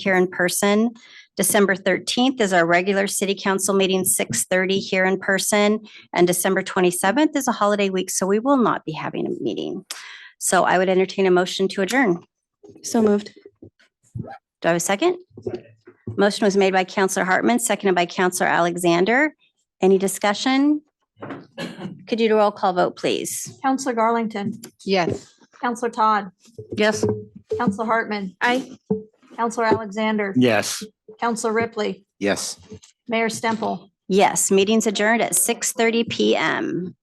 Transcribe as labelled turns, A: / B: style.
A: here in person. December thirteenth is our regular city council meeting, six thirty here in person. And December twenty-seventh is a holiday week, so we will not be having a meeting. So I would entertain a motion to adjourn.
B: So moved.
A: Do I have a second? Motion was made by Counselor Hartman, seconded by Counselor Alexander. Any discussion? Could you do a roll call vote, please?
C: Counselor Garlington.
B: Yes.
C: Counselor Todd.
B: Yes.
C: Counselor Hartman.
B: Aye.
C: Counselor Alexander.
D: Yes.
C: Counselor Ripley.
D: Yes.
C: Mayor Stemple.
A: Yes, meeting's adjourned at six thirty PM.